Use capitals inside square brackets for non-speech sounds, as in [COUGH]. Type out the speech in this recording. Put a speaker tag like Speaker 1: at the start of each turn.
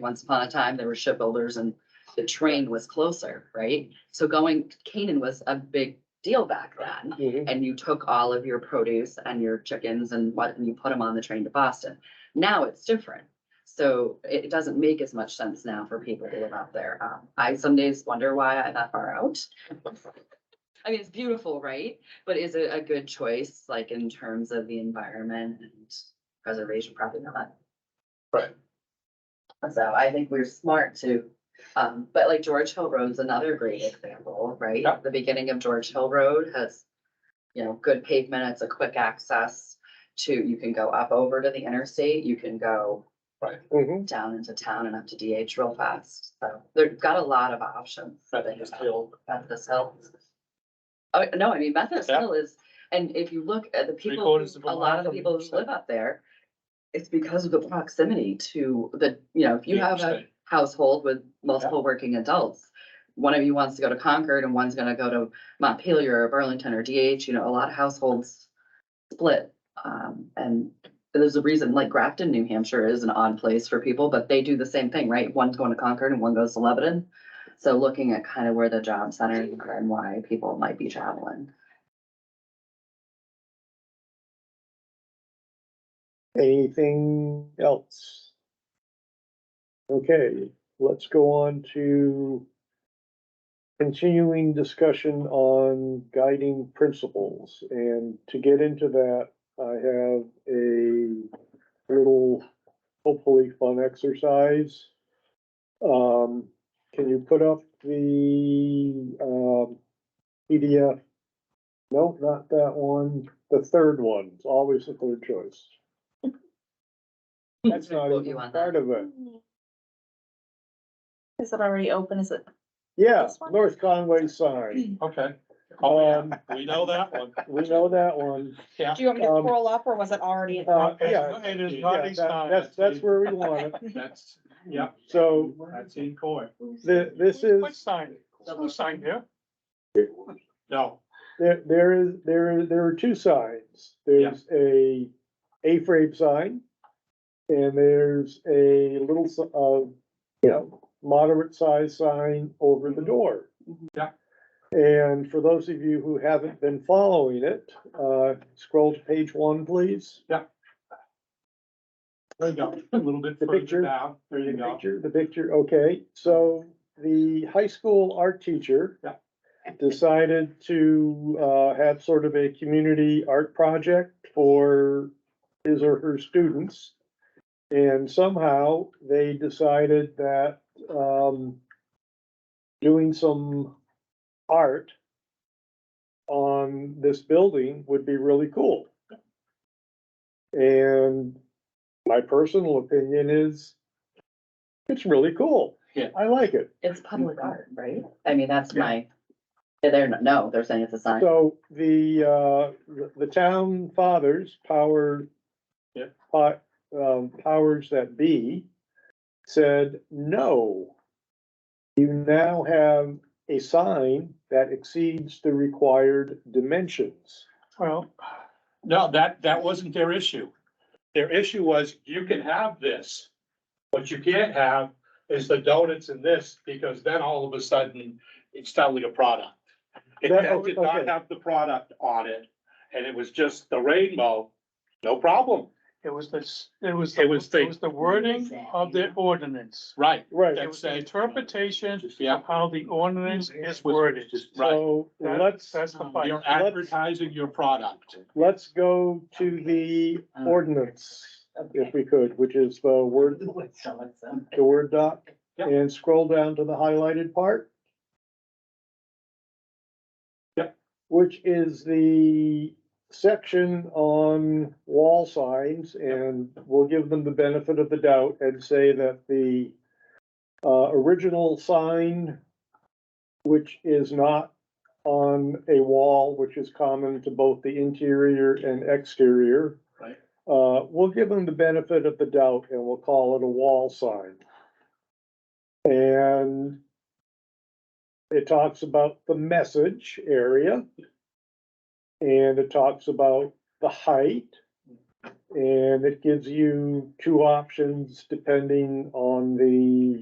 Speaker 1: Once upon a time, there were shipbuilders and the train was closer, right? So going, Canaan was a big deal back then. And you took all of your produce and your chickens and what, and you put them on the train to Boston. Now it's different. So it it doesn't make as much sense now for people to live out there. Um, I some days wonder why I'm that far out. [LAUGHS] I mean, it's beautiful, right? But is it a good choice, like in terms of the environment and preservation? Probably not.
Speaker 2: Right.
Speaker 1: So I think we're smart to, um, but like George Hill Road's another great example, right?
Speaker 2: Yeah.
Speaker 1: The beginning of George Hill Road has, you know, good pavement. It's a quick access to, you can go up over to the interstate, you can go
Speaker 3: Mhm.
Speaker 1: down into town and up to DH real fast. So they've got a lot of options.
Speaker 2: Methodist Hill,
Speaker 1: Methodist Hill. Oh, no, I mean, Methodist
Speaker 2: Yeah.
Speaker 1: Hill is, and if you look at the people,
Speaker 2: quarters of
Speaker 1: who- a
Speaker 2: a
Speaker 1: lot
Speaker 2: mile
Speaker 1: of the
Speaker 2: from
Speaker 1: people
Speaker 2: each
Speaker 1: who
Speaker 2: side.
Speaker 1: live up there, it's because of the proximity to the, you know, if you
Speaker 2: Yeah,
Speaker 1: have a
Speaker 2: same.
Speaker 1: household with multiple working adults, one of you wants to go to Concord and one's gonna go to Montpelier or Burlington or DH, you know, a lot of households split. Um, and there's a reason, like Grafton, New Hampshire is an odd place for people, but they do the same thing, right? One's going to Concord and one goes to Lebanon. So looking at kind of where the job centers are and why people might be traveling.
Speaker 3: Anything else? Okay, let's go on to continuing discussion on guiding principles. And to get into that, I have a little, hopefully fun exercise. Um, can you put up the, um, PDF? No, not that one. The third one, It's always the third choice.
Speaker 1: [LAUGHS]
Speaker 3: That's not
Speaker 1: Quote you
Speaker 3: even
Speaker 1: on that.
Speaker 3: part of it.
Speaker 4: Is it already open? Is it?
Speaker 3: Yeah,
Speaker 4: This one?
Speaker 3: North Conway sign.
Speaker 2: okay. Oh,
Speaker 3: Um,
Speaker 2: yeah. We know
Speaker 3: [LAUGHS]
Speaker 2: that one,
Speaker 3: we know that one.
Speaker 2: yeah.
Speaker 4: Do you want me to
Speaker 3: Um,
Speaker 4: scroll up or was it already?
Speaker 3: Uh,
Speaker 2: It's
Speaker 3: yeah.
Speaker 2: not- It is
Speaker 3: Yeah,
Speaker 2: not
Speaker 3: that-
Speaker 2: a sign.
Speaker 3: That's, that's where we want it.
Speaker 2: [LAUGHS] That's, yeah,
Speaker 3: So
Speaker 2: that's in court.
Speaker 3: the, this is,
Speaker 2: What sign? Who signed here? No,
Speaker 3: there, there is, there, there are two sides. There's a A-frame sign. And theres a little, s- uh, you know, moderate sized sign over
Speaker 4: Mm-hmm.
Speaker 3: the door.
Speaker 2: Yeah.
Speaker 3: And for those of you who haven't been following it, uh, scroll to page one, please.
Speaker 2: there you go, a little bit
Speaker 3: The
Speaker 2: further
Speaker 3: picture.
Speaker 2: down, there you
Speaker 3: The
Speaker 2: go.
Speaker 3: picture, the picture, okay, so the high school art teacher.
Speaker 2: Yeah.
Speaker 3: Decided to uh have sort of a community art project for his or her students. And somehow they decided that um. Doing some art. On this building would be really cool. And my personal opinion is it's really cool.
Speaker 2: Yeah.
Speaker 3: I like it.
Speaker 1: It's public art, right? I mean, that's my, they're, not- no, they're saying it's a sign.
Speaker 3: So the, uh, the- the town fathers, power.
Speaker 2: Yeah.
Speaker 3: pot- um, powers that be said, no. You now have a sign that exceeds the required dimensions.
Speaker 2: Well, no, that, that wasn't their issue. Their issue was, you can have this. What you can't have is the donuts in this, because then all of a sudden, it's totally a product. It
Speaker 3: That-
Speaker 2: did not
Speaker 3: okay.
Speaker 2: have the product on it, and it was just the rainbow, no problem,
Speaker 5: It was this, it was,
Speaker 2: It
Speaker 5: the-
Speaker 2: was the-
Speaker 5: it was the wording of the ordinance.
Speaker 2: right?
Speaker 3: Right,
Speaker 5: It was the interpretation
Speaker 2: Yeah.
Speaker 5: of how the ordinance is worded.
Speaker 2: Right,
Speaker 3: so
Speaker 5: That-
Speaker 3: let's,
Speaker 5: That's the fight.
Speaker 2: you're advertising your product.
Speaker 3: let's go to the ordinance, if we could, which is the word the Word doc
Speaker 2: Yep.
Speaker 3: and scroll down to the highlighted part.
Speaker 2: Yep.
Speaker 3: Which is the section on wall signs and we'll give them the benefit of the doubt and say that the uh, original sign, which is not on a wall, which is common to both the interior and exterior.
Speaker 2: Right.
Speaker 3: Uh, we'll give them the benefit of the doubt and we'll call it a wall sign. And it talks about the message area. And it talks about the height And it gives you two options depending on the